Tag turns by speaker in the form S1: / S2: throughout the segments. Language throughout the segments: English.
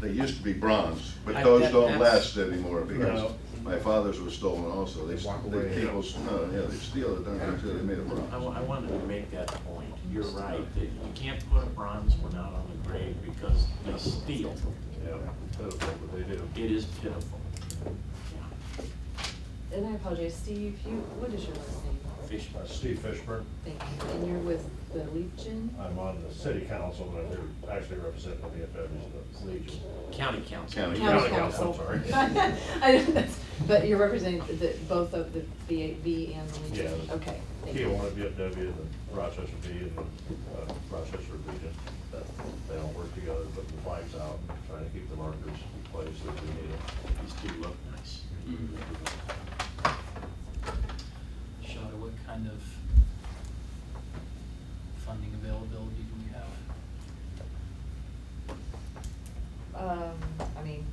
S1: They used to be bronze, but
S2: I-
S1: those
S2: that-
S1: don't last
S2: that's-
S1: anymore because
S2: No.
S1: my father's was stolen also. They,
S3: Walk
S1: they
S3: away.
S1: people, no, yeah, they steal it, don't they, too, they made it
S2: I,
S1: bronze.
S2: wa- I wanted to make that point. You're right, that you can't put a bronze one out on the grave because they steal.
S4: Yeah, pitiful, but they do.
S2: It is pitiful.
S5: And I apologize, Steve, you, what is your last name?
S2: Fish.
S4: Uh, Steve Fishburne,
S5: Thank you. And you're with the Legion?
S4: I'm on the city council, but I'm here actually representing the VFW, the Legion.
S2: County council.
S1: County
S5: County
S4: Council,
S5: Council.
S4: sorry.
S5: I know that's, but you're representing the, both of the VAV and the Legion?
S4: Yeah.
S5: Okay, thank you.
S4: Kiwanis VFW, and the Rochester V, and the uh, Rochester Legion, that, they all work together, put the flags out, trying to keep the markers in place that we need them.
S2: These two look nice.
S6: Hmm. Shota, what kind of funding availability do we have?
S5: Um, I mean,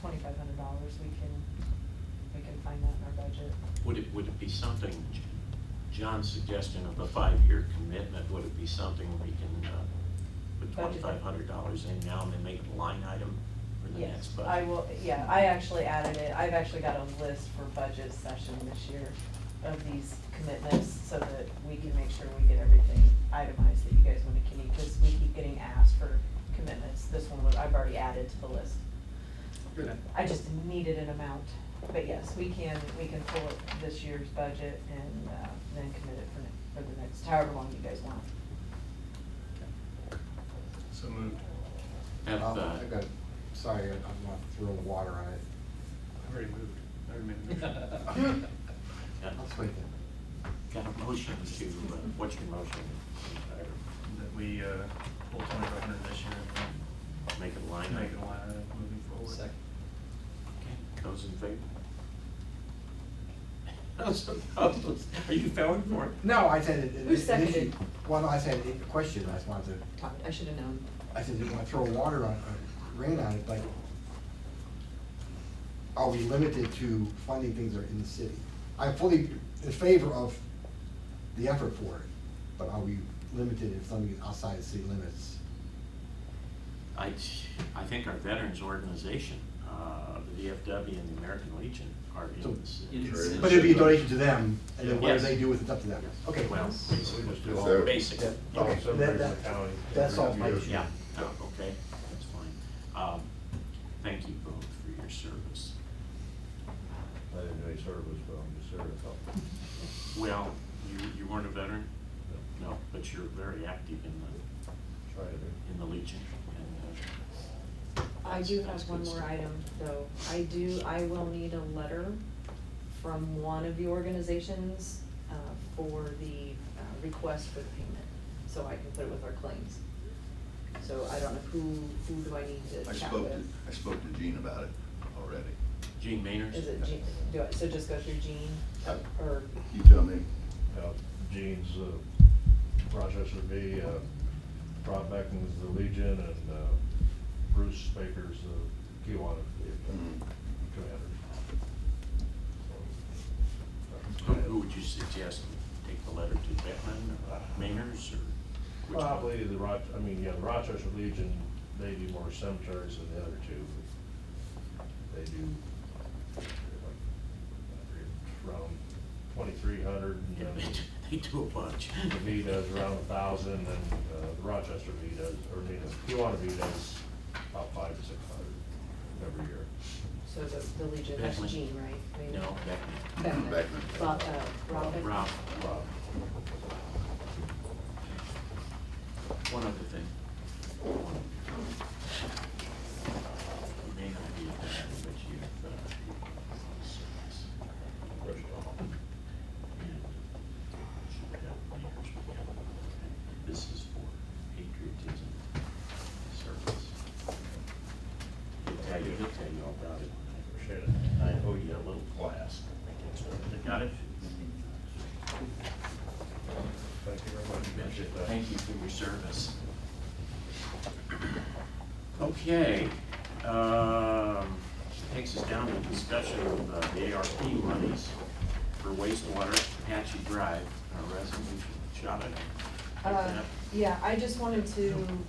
S5: twenty-five hundred dollars, we can, we can find that in our budget.
S2: Would it, would it be something, John's suggestion of a five-year commitment, would it be something we can uh, put
S7: Budget.
S2: twenty-five hundred dollars in now and then make a line item for the next
S7: Yes,
S2: budget?
S7: I will, yeah, I actually added it, I've actually got a list for budget session this year of these commitments, so that we can make sure we get everything itemized that you guys want to keep, because we keep getting asked for commitments, this one was, I've already added to the list. I just needed an amount, but yes, we can, we can pull up this year's budget and, uh, then commit it for, ne- for the next, however long you guys want.
S3: So moved.
S2: Have,
S3: Um,
S2: uh,
S3: I got, sorry, I'm not throwing water on it.
S8: I already moved, I already made a motion.
S2: got-
S3: I'll take it.
S2: Got a motion to, uh, what's your motion?
S8: That we uh, pull twenty-five hundred this year
S2: Make it a line
S8: and
S2: item?
S8: make it a line item moving forward.
S6: Second.
S2: Okay, Those in favor? Those opposed? Are you voting for it?
S3: No, I said it. it-
S5: Who
S3: it- the issue-
S5: seconded?
S3: Well, no, I said, it- the question, I just wanted to,
S5: Todd, I should have known.
S3: I said, didn't want to throw water on, uh, rain on it, but are we limited to funding things that are in the city? I'm fully in favor of the effort for it, but are we limited if something is outside the city limits?
S2: I, I think our veterans organization, uh, the VFW and the American Legion are in this.
S6: It's-
S3: But it'd be a donation to them, and then whatever
S2: Yes.
S3: they do with it's up to them. Okay,
S2: Well,
S4: So we
S2: basically,
S4: just do all,
S1: So-
S2: basic,
S3: Yeah.
S4: all
S3: Okay,
S4: cemeteries in
S3: that-
S4: the county.
S3: that's all my issue.
S2: yeah, oh, okay, that's fine. Um, Thank you both for your service.
S4: I didn't do any service, but I'm just here to help.
S2: Well, you, you weren't a veteran? No, but you're very active in the,
S4: Try to do.
S2: in the Legion and. uh,
S5: I
S2: that's-
S5: do
S2: that's
S5: have
S2: good
S5: one more
S2: stuff.
S5: item, though. I do, I will need a letter from one of the organizations uh, for the uh, request for the payment, so I can put it with our claims. So I don't know who, who do I need
S1: I
S5: to chat
S1: spoke to,
S5: with?
S1: I spoke to Gene about it already.
S2: Gene Maynard?
S5: Is it Jean, do I, so just go through Jean,
S1: Uh,
S5: or,
S1: You tell me,
S4: Uh, Gene's uh, Rochester V, uh, Rob Beckman's the Legion, and uh, Bruce Baker's the Kiwanis
S1: Mhm.
S4: commander. So,
S2: Who,
S4: that's
S2: who would you suggest take the letter to, Beckman, or Maynard's, or? which one?
S4: Probably the Roch, I mean, yeah, the Rochester Legion, they do more cemeteries than the other two. They do, like, around twenty-three hundred,
S2: Yeah,
S4: and uh,
S2: They
S4: then
S2: do- they do a bunch.
S4: The V does around a thousand, and uh, the Rochester V does, or V does, Kiwanis V does about five to six hundred every year.
S5: so the, the Legion, that's
S2: Beckman.
S5: Jean, right? Maybe-
S2: No, Beckman.
S5: Beckman.
S1: Beckman.
S5: Bob, uh, Rob Beckman?
S2: Rob,
S4: Rob,
S2: one other thing. It may not be a bad, but you've, uh,
S4: Rochester.
S2: This is for patriotism service. He'll tell you, he'll tell you all about it.
S4: Appreciate it.
S2: I owe you a little class. Got it?
S4: Thank you very much, appreciate that.
S2: Thank you for your service. Okay, um, takes us down to discussion of uh, the ARP monies for wastewater Apache Drive, our resolution, shot it.
S5: Uh, Yeah, I just wanted to